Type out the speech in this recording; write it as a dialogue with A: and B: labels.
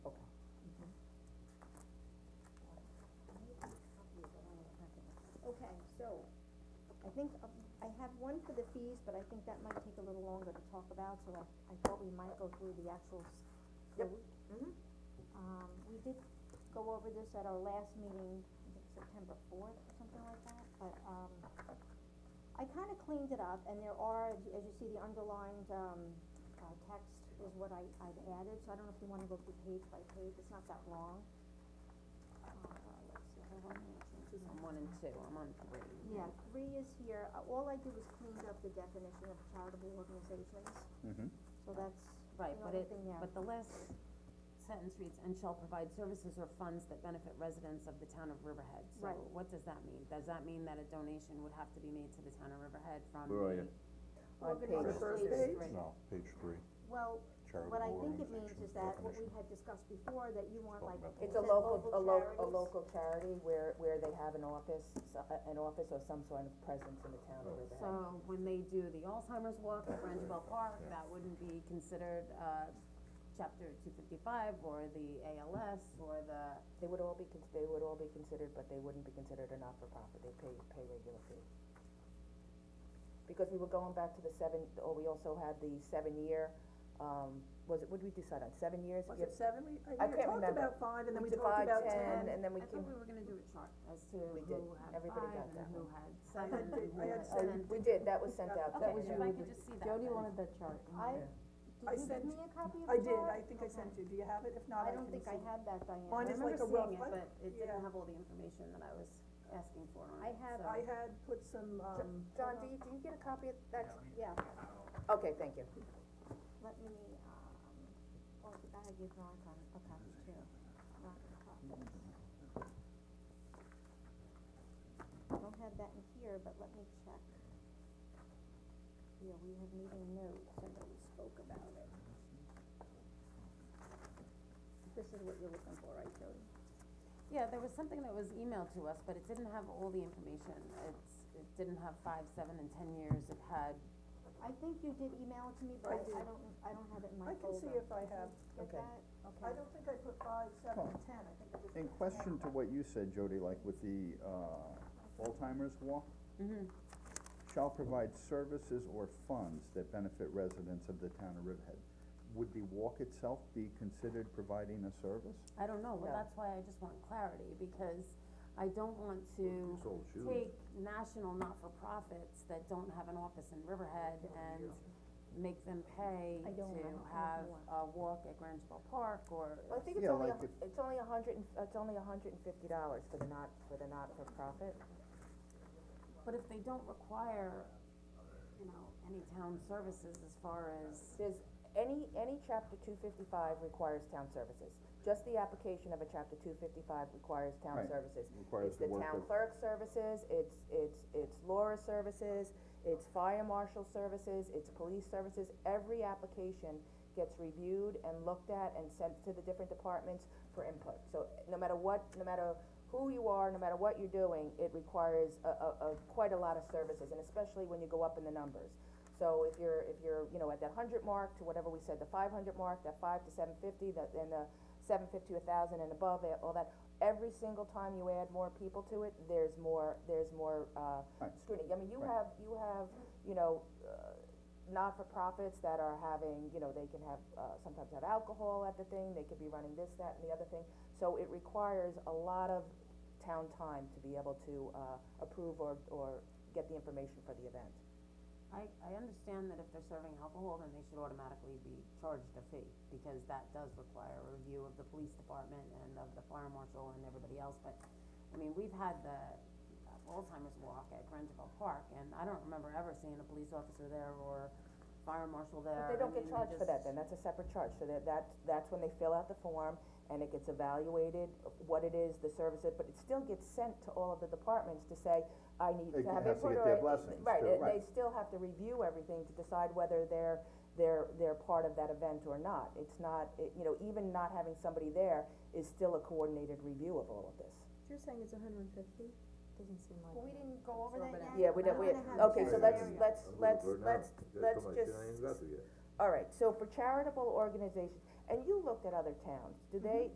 A: um, one for the fees, but I think that might take a little longer to talk about, so I, I thought we might go through the actuals.
B: Yep.
A: for the-
B: Mhm.
A: Um, we did go over this at our last meeting, I think September fourth or something like that, but, um, I kinda cleaned it up, and there are, as you- as you see, the underlined, um, uh, text is what I, I've added, so I don't know if you wanna go through page by page, it's not that long. Uh, let's see, I have all my changes on.
B: One and two, I'm on three.
A: Yeah, three is here, Uh, all I did was cleaned up the definition of charitable organizations,
C: Mm-hmm.
A: so that's
D: Right, but
A: another
D: it,
A: thing there.
D: but the last sentence reads, and shall provide services or funds that benefit residents of the town of Riverhead. So
A: Right.
D: what does that mean? Does that mean that a donation would have to be made to the town of Riverhead from
C: Where are you?
D: the-
B: On page
A: Organization.
B: three.
D: Page three.
E: No, page three,
A: Well,
E: charitable
A: what I think
E: organization.
A: it means is that what we had discussed before, that you want
E: Talking
A: like.
E: about the
B: It's a
A: said
B: local, a lo- a
A: charities.
B: local charity where, where they have an office, so- a- an office or some sort of presence in the town of Riverhead.
D: So when they do the Alzheimer's walk at Rangeville Park, that wouldn't be considered, uh, chapter two fifty-five or the ALS or the,
B: They would all be, cons- they would all be considered, but they wouldn't be considered a not-for-profit, they pay, pay regular fee. Because we were going back to the seven, or we also had the seven-year, um, was it, what did we decide on, seven years?
F: Was
B: Yes.
F: it seven, we, I
B: I
F: we
B: can't
F: talked
B: remember.
F: about five, and then we
B: did
F: talked
B: five,
F: about
B: ten,
F: ten.
B: and then we
D: I
B: came,
D: thought we were gonna do a chart as to
B: We did.
D: who had
B: Everybody
D: five
B: got
D: and
B: that
D: who
B: one.
D: had
F: I
D: seven
F: had
D: and
F: the-
D: who
F: I
D: had.
F: had seven.
B: we did, that was sent out, that
D: Okay,
B: was
D: if
B: you.
D: I could just see that.
G: Jody
D: then.
G: wanted that chart.
A: I,
B: Yeah.
F: I
A: did you give
F: sent-
A: me a copy of the
F: I did,
A: chart?
F: I think I
A: Okay.
F: sent you, do you have it? If not,
A: I
F: I can
A: don't
F: see.
A: think I had that, Diane.
F: Mine is like a
D: I remember seeing
F: rough,
D: it,
F: I,
D: but it
F: yeah.
D: didn't have all the information that I was asking for on
A: I
D: it,
A: have-
D: so-
F: I had put some, um,
B: John, do you, do you get a copy of that?
A: Yeah,
B: Okay, thank you.
A: let me, um, oh, I gotta give Ron a copy, a copy too. Ron a copy. Don't have that in here, but let me check. Yeah, we have meeting notes, I know we spoke about it. This is what you're looking for, right, Jody?
D: Yeah, there was something that was emailed to us, but it didn't have all the information, it's, it didn't have five, seven, and ten years, it had,
A: I think you did email it to me, but
F: I
A: I,
F: did.
A: I don't, I don't have it in my
F: I can see
A: folder.
F: if I have,
A: Get
B: Okay.
A: that?
F: I don't think I put five, seven, and ten, I think I just.
C: In
F: put
C: question to
F: 10.
C: what you said, Jody, like with the, uh, Alzheimer's walk,
D: Mm-hmm.
C: shall provide services or funds that benefit residents of the town of Riverhead. Would the walk itself be considered providing a service?
D: I don't know, well,
B: No.
D: that's why I just want clarity, because I don't want to
C: sold shoes.
D: take national not-for-profits that don't have an office in Riverhead and make them pay
A: I don't, I
D: to
A: don't have
D: have
A: one.
D: a walk at Grangeville Park or.
B: Well, I think it's
C: Yeah,
B: only, a
C: like
B: hun- it's only a hundred and, it's only a hundred and fifty dollars for the not, for the not-for-profit.
D: But if they don't require, you know, any town services as far as,
B: There's, any, any chapter two fifty-five requires town services. Just the application of a chapter two fifty-five requires town
C: Right.
B: services.
C: Requires
B: It's
C: the
B: the
C: work
B: town
C: of-
B: clerk services, it's, it's, it's Laura services, it's fire marshal services, it's police services. Every application gets reviewed and looked at and sent to the different departments for input. So no matter what, no matter who you are, no matter what you're doing, it requires a, a, a, quite a lot of services, and especially when you go up in the numbers. So if you're, if you're, you know, at that hundred mark to whatever we said, the five hundred mark, that five to seven fifty, that, and the seven fifty, a thousand and above, eh, all that, every single time you add more people to it, there's more, there's more, uh,
C: Right.
B: scrutiny. I mean, you
C: Right.
B: have, you have, you know, uh, not-for-profits that are having, you know, they can have, uh, sometimes have alcohol at the thing, they could be running this, that, and the other thing. So it requires a lot of town time to be able to, uh, approve or, or get the information for the event.
D: I, I understand that if they're serving alcohol, then they should automatically be charged a fee, because that does require a review of the police department and of the fire marshal and everybody else, but, I mean, we've had the uh, Alzheimer's walk at Grangeville Park, and I don't remember ever seeing a police officer there or fire marshal there,
B: But they
D: I
B: don't get
D: mean,
B: charged for that
D: just-
B: then, that's a separate charge, so that, that, that's when they fill out the form and it gets evaluated, what it is, the service, it- but it still gets sent to all of the departments to say, I need
C: They
B: to have
C: have to
B: input
C: get
B: or.
C: their
B: I-
C: blessings
B: Right,
C: too,
B: they, they
C: right.
B: still have to review everything to decide whether they're, they're, they're part of that event or not. It's not, it, you know, even not having somebody there is still a coordinated review of all of this.
G: You're saying it's hundred and fifty? Doesn't seem like.
A: Well, we didn't go over that yet.
B: Yeah, we don't,
A: I'm
B: we,
A: gonna have
B: okay,
A: to
B: so
A: check
B: let's,
A: it out.
B: let's, let's, let's, let's just. All right, so for charitable organizations, and you looked at other towns, do they,